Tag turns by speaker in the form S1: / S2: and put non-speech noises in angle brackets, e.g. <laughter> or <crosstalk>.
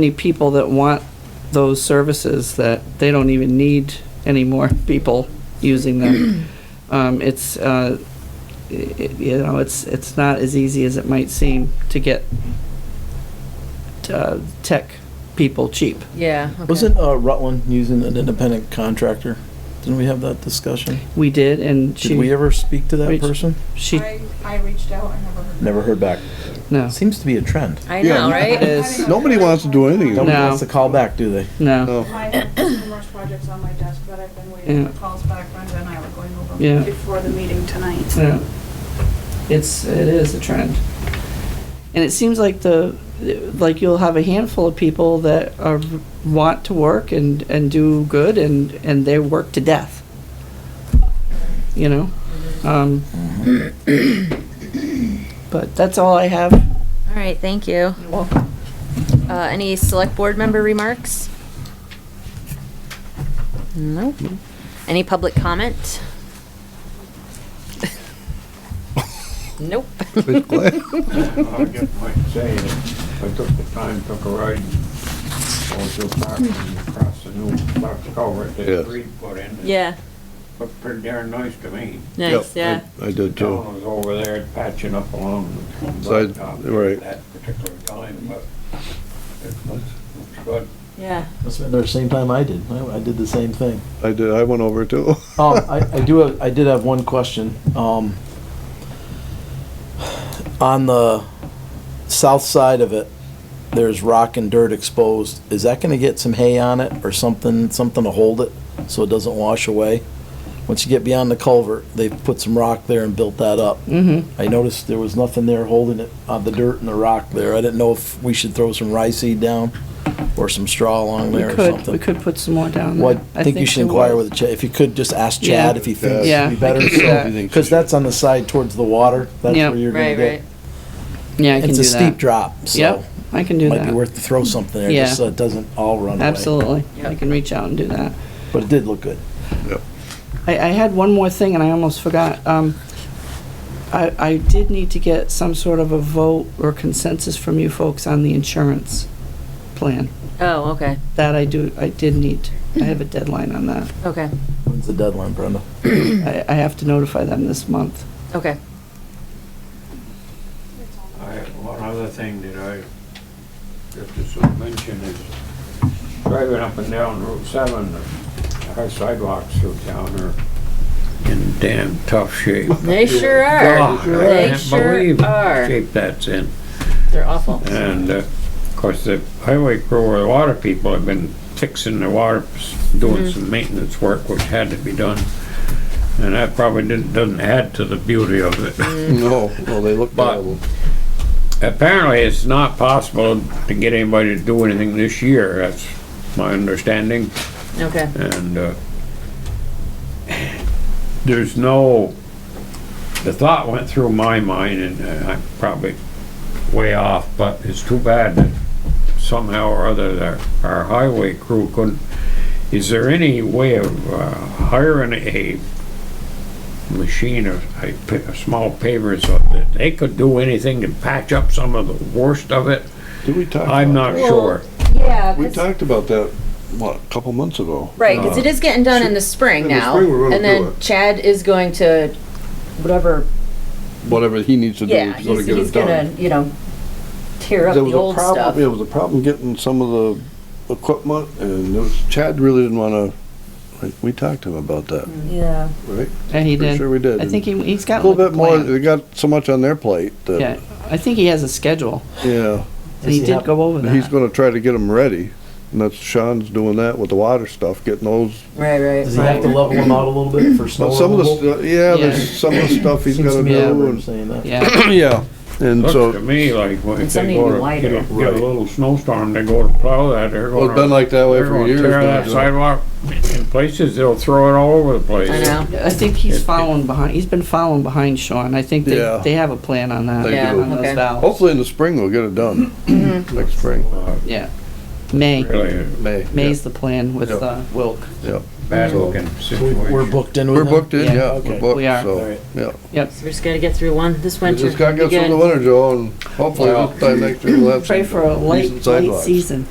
S1: many people that want those services that they don't even need any more <laughs> people using them. Um, it's, uh, i- i- you know, it's, it's not as easy as it might seem to get uh, tech people cheap.
S2: Yeah. okay.
S3: Wasn't uh, Rutland using an independent contractor? Didn't we have that discussion?
S1: We did, and
S3: Did we
S1: she,
S3: ever speak to that
S1: Reach-
S3: person?
S1: she,
S4: I, I reached out, I never heard.
S3: Never heard back.
S1: no,
S3: Seems to be a trend.
S2: I
S5: Yeah,
S2: know,
S5: you-
S2: right?
S1: It is.
S5: Nobody wants to do anything.
S3: Nobody
S1: No.
S3: wants to call back, do they?
S1: no,
S2: <laughs>
S5: No.
S4: I have numerous projects on my desk that I've been waiting
S1: Yeah.
S4: for calls back, Brenda and I were going over
S1: Yeah.
S4: them before the meeting tonight.
S1: no. It's, it is a trend. And it seems like the, like you'll have a handful of people that are, want to work and, and do good and, and they work to death. You know? Um,
S3: Mm-hmm.
S1: But that's all I have.
S2: All right, thank you. Uh, any select board member remarks? Nope. Any public comment? Nope.
S5: But glad-
S6: I just might say that I took the time, took a ride, over to the park and across the new box culvert
S5: Yes.
S6: that Reed put in. It
S2: Yeah,
S6: Looked pretty darn nice to me.
S2: nice, yeah.
S5: Yep, I I did too.
S6: John was over there patching up along the
S5: Side-
S6: blacktop
S5: right.
S6: at that particular time, but it looks, looks good.
S2: Yeah.
S3: That's been there the same time I did. I, I did the same thing.
S5: I did, I went over too.
S3: Um, I,
S5: <laughs>
S3: I do, have- I did have one question. Um, on the south side of it, there's rock and dirt exposed. Is that gonna get some hay on it or something, something to hold it so it doesn't wash away? Once you get beyond the culvert, they've put some rock there and built that up.
S1: Mm-hmm.
S3: I noticed there was nothing there holding it, uh, the dirt and the rock there. I didn't know if we should throw some rye seed down or some straw along
S1: We
S3: there or
S1: could,
S3: something.
S1: we could put some more down there.
S3: Well, I think you should
S1: there
S3: inquire
S1: was.
S3: with, Ch- if you could, just ask
S1: Yeah.
S3: Chad if he thinks
S1: Yeah.
S3: it'd be better.
S1: Yeah.
S3: so-
S1: You
S5: think
S3: Cause
S5: so.
S3: that's on the side towards the water, that's
S1: Yeah.
S3: where you're gonna
S2: Right, right.
S3: get.
S1: Yeah, I can do
S3: It's
S1: that.
S3: a steep drop, so
S1: Yep, I can do
S3: might be
S1: that.
S3: worth to throw something there,
S1: Yeah.
S3: just so it doesn't all run away.
S1: Absolutely. I
S2: Yep.
S1: can reach out and do that.
S3: But it did look good.
S1: I, I had one more thing and I almost forgot. Um, I, I did need to get some sort of a vote or consensus from you folks on the insurance plan.
S2: Oh, okay,
S1: That I do, I did need. I have a deadline on that.
S2: okay,
S3: When's the deadline, Brenda?
S1: I, I have to notify them this month.
S2: okay.
S6: I, one other thing that I just to sort of mention is driving up and down Route seven, our sidewalks through town are in damn tough shape.
S2: They sure are.
S6: God, Oh, I
S2: They
S6: can't
S2: sure
S6: believe the
S2: are.
S6: shape that's in.
S2: They're awful.
S6: And, uh, of course, the highway crew or the water people have been fixing the water, doing some maintenance work which had to be done. And that probably didn't, doesn't add to the beauty of it.
S5: No, no, they look
S6: But-
S5: terrible.
S6: Apparently, it's not possible to get anybody to do anything this year, that's my understanding,
S2: Okay,
S6: and, uh, there's no, the thought went through my mind, and uh, I'm probably way off, but it's too bad that somehow or other that our highway crew couldn't, is there any way of uh, hiring a machine or a, pa- a small paver so that they could do anything to patch up some of the worst of it?
S5: Did we talk?
S6: I'm
S5: about
S6: not sure.
S2: yeah.
S5: that? We
S2: 'cause-
S5: talked about that, what, a couple months ago?
S2: Right, because it is getting done in the spring
S5: Uh, in the
S2: now.
S5: spring we're gonna
S2: And then
S5: do it.
S2: Chad is going to whatever.
S5: Whatever he needs to do
S2: Yeah,
S5: to sort
S2: he's,
S5: of get
S2: he's
S5: it
S2: gonna
S5: done.
S2: you know tear up
S5: There
S2: the
S5: was a
S2: old
S5: problem,
S2: stuff.
S5: there was a problem getting some of the equipment and there was, Chad really didn't wanna, like, we talked to him about that,
S2: Yeah,
S5: right?
S1: Yeah, he
S5: Pretty
S1: did.
S5: sure we did.
S1: I think he, he's
S5: A
S1: got
S5: little
S1: like a
S5: bit more,
S1: plan.
S5: they got so much on their plate
S1: Yeah,
S5: that,
S1: I think he has a schedule.
S5: yeah.
S1: And he
S3: he
S1: did
S3: have-
S1: go over
S5: And He's
S1: that.
S5: gonna try to get them ready. And that's, Sean's doing that with the water stuff, getting those
S2: right, right.
S3: Does he have to level them out a little bit for snow
S5: Well, some of the,
S3: removal?
S5: stu- yeah,
S1: Yeah.
S5: there's some of the stuff he's
S3: Seems
S5: gonna
S3: to me I
S5: do
S3: remember
S5: and, <coughs>
S3: saying that.
S1: Yeah,
S5: yeah, and
S6: Looks to
S5: so,
S6: me like when
S2: And
S6: if they
S2: something
S6: go to,
S2: wider.
S6: get a, get a
S5: Right.
S6: little snowstorm, they go to plow that, they're
S5: well,
S6: gonna.
S5: it's been like that way
S6: They're
S5: for
S6: gonna
S5: years.
S6: tear that
S5: now.
S6: sidewalk in places, they'll throw it all over the place.
S2: I know.
S1: I think he's following behind, he's been following behind Sean. I think
S5: Yeah.
S1: they, they have a plan on that.
S5: They
S2: Yeah,
S5: do. Oh.
S1: On those
S2: okay.
S1: valves.
S5: Hopefully in the spring we'll get it done, next spring,
S6: Uh,
S1: Yeah, May.
S6: Really,
S5: May.
S1: May's the plan with
S5: Yeah.
S1: uh, Wilk.
S5: Yeah.
S6: bad looking situation.
S3: We're booked in with
S5: We're
S3: them?
S5: booked in, yeah,
S3: Oh, okay.
S5: we're booked,
S1: We are.
S3: All
S5: so,
S3: right.
S5: yeah.
S1: Yep.
S7: So we just gotta get through one this winter.
S5: Just gotta get through
S7: Again.
S5: the winter, Joe, and hopefully
S6: Well-
S5: this time next year we'll have some.
S1: Pray for a late,
S5: decent
S1: late
S5: sidewalks.
S1: season.